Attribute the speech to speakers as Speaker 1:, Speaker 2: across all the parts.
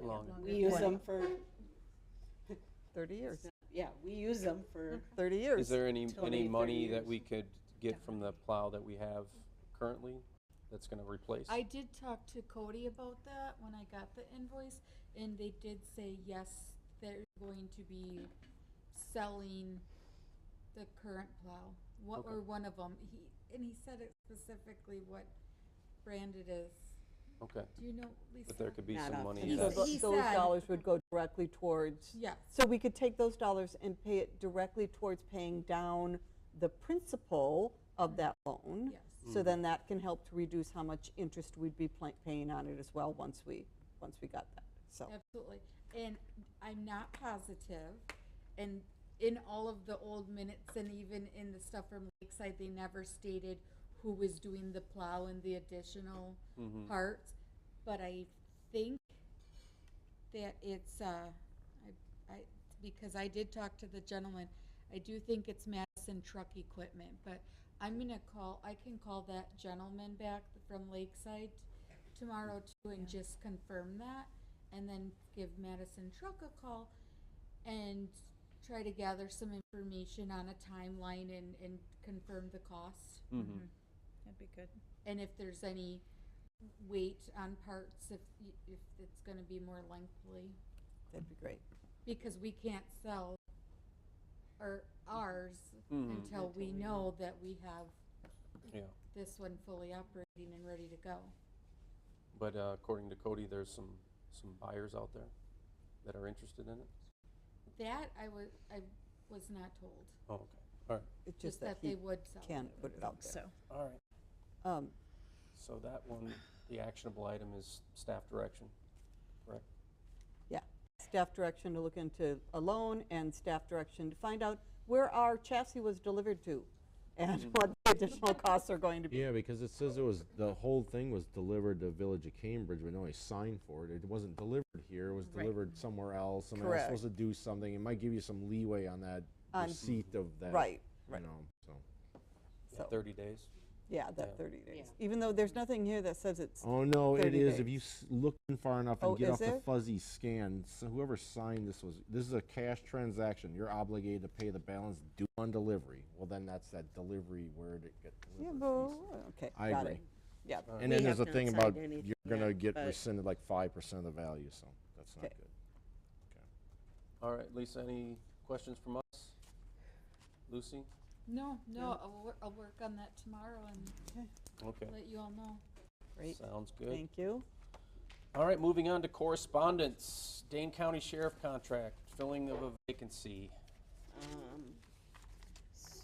Speaker 1: long?
Speaker 2: We use
Speaker 1: Twenty-
Speaker 2: them for,
Speaker 1: Thirty years,
Speaker 2: yeah, we use them for,
Speaker 1: thirty
Speaker 3: Is
Speaker 1: years.
Speaker 3: there any,
Speaker 2: Till maybe
Speaker 3: any
Speaker 2: 30
Speaker 3: money that
Speaker 2: years.
Speaker 3: we could get from the plow that we have currently that's gonna replace?
Speaker 4: I did talk to Cody about that when I got the invoice, and they did say, yes, they're going to be selling the current plow. What,
Speaker 3: Okay.
Speaker 4: or one of them, he, and he said it specifically what brand it is.
Speaker 3: Okay,
Speaker 4: Do you know, Lisa?
Speaker 3: but there could be
Speaker 2: Not
Speaker 3: some
Speaker 2: off
Speaker 3: money
Speaker 2: the
Speaker 3: in
Speaker 2: top
Speaker 1: So
Speaker 3: that.
Speaker 4: Yes.
Speaker 1: tho-
Speaker 4: He
Speaker 1: Those
Speaker 4: said-
Speaker 1: dollars would go directly towards,
Speaker 4: Yes,
Speaker 1: so we could take those dollars and pay it directly towards paying down the principal of that loan.
Speaker 4: yes.
Speaker 3: Hmm.
Speaker 1: So then that can help to reduce how much interest we'd be pla- paying on it as well, once we, once we got that, so.
Speaker 4: Absolutely. And I'm not positive, and in all of the old minutes and even in the stuff from Lakeside, they never stated who was doing the plow and the additional parts. But I think that it's, uh, I, I, because I did talk to the gentleman, I do think it's Madison Truck Equipment, but I'm gonna call, I can call that gentleman back from Lakeside tomorrow too and just confirm that, and then give Madison Truck a call and try to gather some information on a timeline and, and confirm the cost.
Speaker 3: Mhm.
Speaker 2: Mm-hmm.
Speaker 5: That'd be good.
Speaker 4: And if there's any weight on parts, if, y- if it's gonna be more lengthy
Speaker 1: That'd be great.
Speaker 4: because we can't sell our, ours
Speaker 3: Mhm.
Speaker 4: until we know that we have
Speaker 2: Mm-hmm.
Speaker 3: Yeah,
Speaker 4: this one fully operating and ready to go.
Speaker 3: but uh, according to Cody, there's some, some buyers out there that are interested in it?
Speaker 4: That I was, I was not told,
Speaker 3: Oh, okay, all right,
Speaker 1: It's
Speaker 4: just that
Speaker 1: he
Speaker 4: they would sell.
Speaker 1: Can put it out
Speaker 5: So,
Speaker 1: there.
Speaker 3: all right.
Speaker 1: Um,
Speaker 3: So that one, the actionable item is staff direction, correct?
Speaker 1: staff direction to look into a loan and staff direction to find out where our chassis was delivered to and
Speaker 6: Mm-hmm.
Speaker 1: what the additional costs are going to be.
Speaker 6: Yeah, because it says it was, the whole thing was delivered to Village of Cambridge, but no, I signed for it. It wasn't delivered here, it was
Speaker 5: Right.
Speaker 6: delivered somewhere else. Somebody was supposed to do something. It might give you some leeway on that
Speaker 1: On-
Speaker 6: receipt of that.
Speaker 1: Right,
Speaker 6: You know, so.
Speaker 3: Yeah,
Speaker 1: So-
Speaker 3: Thirty days?
Speaker 1: yeah,
Speaker 3: Yeah.
Speaker 1: that 30 days.
Speaker 2: Yeah.
Speaker 1: Even though there's nothing here that says it's,
Speaker 6: Oh, no, it
Speaker 1: 30
Speaker 6: is. If you s- look in far enough
Speaker 1: Oh,
Speaker 6: and get
Speaker 1: is
Speaker 6: off the
Speaker 1: it?
Speaker 6: fuzzy scan, so whoever signed this was, this is a cash transaction. You're obligated to pay the balance due on delivery. Well, then that's that delivery word it gets
Speaker 1: yeah,
Speaker 6: delivered.
Speaker 1: well,
Speaker 6: piece.
Speaker 1: okay,
Speaker 6: I
Speaker 1: got
Speaker 6: agree.
Speaker 1: it. Yeah,
Speaker 6: And
Speaker 5: We
Speaker 6: then
Speaker 5: have
Speaker 6: there's a
Speaker 5: not
Speaker 6: thing
Speaker 5: signed
Speaker 6: about
Speaker 5: anything
Speaker 6: you're gonna
Speaker 5: yet,
Speaker 6: get
Speaker 5: but-
Speaker 6: rescinded like five percent of the value, so that's not
Speaker 1: Okay.
Speaker 6: good.
Speaker 3: All right, Lisa, any questions from us? Lucy?
Speaker 4: No, no, I'll, wor- I'll work on that tomorrow and
Speaker 3: Okay,
Speaker 4: let you all know.
Speaker 1: great.
Speaker 3: sounds good.
Speaker 1: Thank you.
Speaker 3: All right, moving on to correspondence. Dane County Sheriff contract, filling of a vacancy.
Speaker 2: um,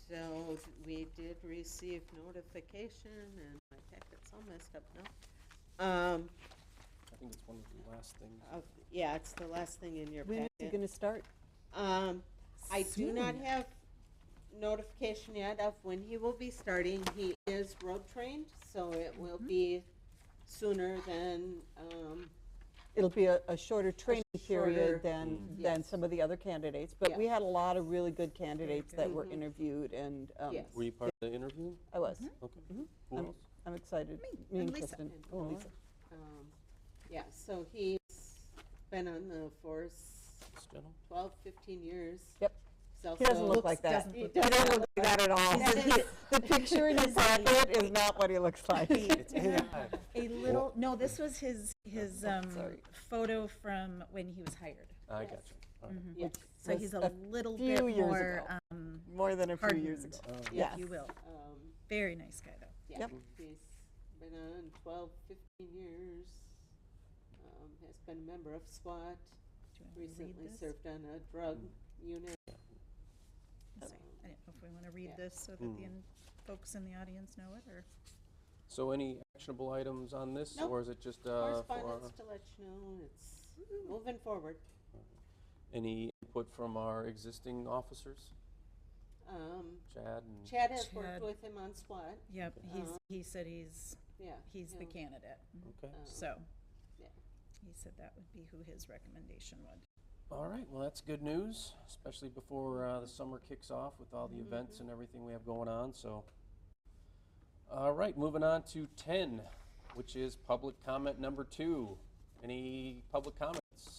Speaker 2: so we did receive notification and my packet's all messed up now. Um,
Speaker 3: I think it's one of the last things.
Speaker 2: of- yeah, it's the last thing in your
Speaker 1: When is it
Speaker 2: packet.
Speaker 1: going to start?
Speaker 2: Um, I do not
Speaker 1: Soon.
Speaker 2: have notification yet of when he will be starting. He is road trained, so it will
Speaker 1: Mm-hmm.
Speaker 2: be sooner than, um,
Speaker 1: It'll be a, a shorter training
Speaker 2: shorter- Mm,
Speaker 1: period than, than
Speaker 2: Yes.
Speaker 1: some of the other candidates. But
Speaker 2: Yeah.
Speaker 1: we had a lot of really good candidates that were
Speaker 2: Mhm.
Speaker 1: interviewed and, um,
Speaker 2: Yes.
Speaker 3: Were you part of the interview?
Speaker 1: I was.
Speaker 6: Mm-hmm.
Speaker 3: Okay.
Speaker 1: Mhm.
Speaker 3: Who
Speaker 1: I'm-
Speaker 3: else?
Speaker 1: I'm excited. Me
Speaker 5: and
Speaker 1: and
Speaker 5: Lisa.
Speaker 1: Kristen.
Speaker 2: And
Speaker 1: Oh,
Speaker 2: Laura.
Speaker 1: Lisa.
Speaker 2: um, yeah, so he's been on the force
Speaker 3: This gentleman?
Speaker 2: 12, 15 years.
Speaker 1: Yep.
Speaker 2: So
Speaker 1: He doesn't
Speaker 2: so-
Speaker 1: look like that.
Speaker 2: He
Speaker 1: He doesn't
Speaker 2: does
Speaker 1: look like that at all.
Speaker 2: That is-
Speaker 1: The picture in his pocket is not what he looks like.
Speaker 3: It's AI.
Speaker 5: a little, no, this was his, his um,
Speaker 1: Oh, sorry.
Speaker 5: photo from when he was hired.
Speaker 3: I got you. All right.
Speaker 2: Yeah,
Speaker 5: So
Speaker 1: Was
Speaker 5: he's
Speaker 1: a
Speaker 5: a little
Speaker 1: few
Speaker 5: bit
Speaker 1: years
Speaker 5: more,
Speaker 1: ago.
Speaker 5: um,
Speaker 1: More than a few years
Speaker 5: Hardened.
Speaker 1: ago.
Speaker 3: Oh,
Speaker 5: if
Speaker 1: Yes.
Speaker 5: you will.
Speaker 2: um,
Speaker 5: Very nice guy, though.
Speaker 2: Yeah,
Speaker 1: Yep.
Speaker 2: he's been on 12, 15 years, um, has been a member of SWAT,
Speaker 5: Do you wanna read
Speaker 2: recently
Speaker 5: this?
Speaker 2: served on a drug
Speaker 3: Hmm.
Speaker 2: unit.
Speaker 5: I'm sorry, I don't know if we want to read
Speaker 2: Yeah.
Speaker 5: this so that the in- folks in the audience know it, or?
Speaker 3: So any actionable items on this,
Speaker 2: Nope.
Speaker 3: or is it just uh, for
Speaker 2: Correspondence to let you know, it's moving forward.
Speaker 3: any input from our existing officers?
Speaker 2: Um,
Speaker 3: Chad and,
Speaker 2: Chad has worked
Speaker 5: Chad.
Speaker 2: with him on SWAT,
Speaker 5: Yep,
Speaker 1: Uh-huh.
Speaker 5: he's,
Speaker 2: Uh,
Speaker 5: he said he's,
Speaker 2: yeah.
Speaker 5: he's the
Speaker 2: he'll,
Speaker 5: candidate,
Speaker 3: okay.
Speaker 2: um,
Speaker 5: so.
Speaker 2: yeah.
Speaker 5: He said that would be who his recommendation would.
Speaker 3: All right, well, that's good news, especially before uh, the summer kicks off with all the events and everything we have going on, so. All right, moving on to 10, which is public comment number two. Any public comment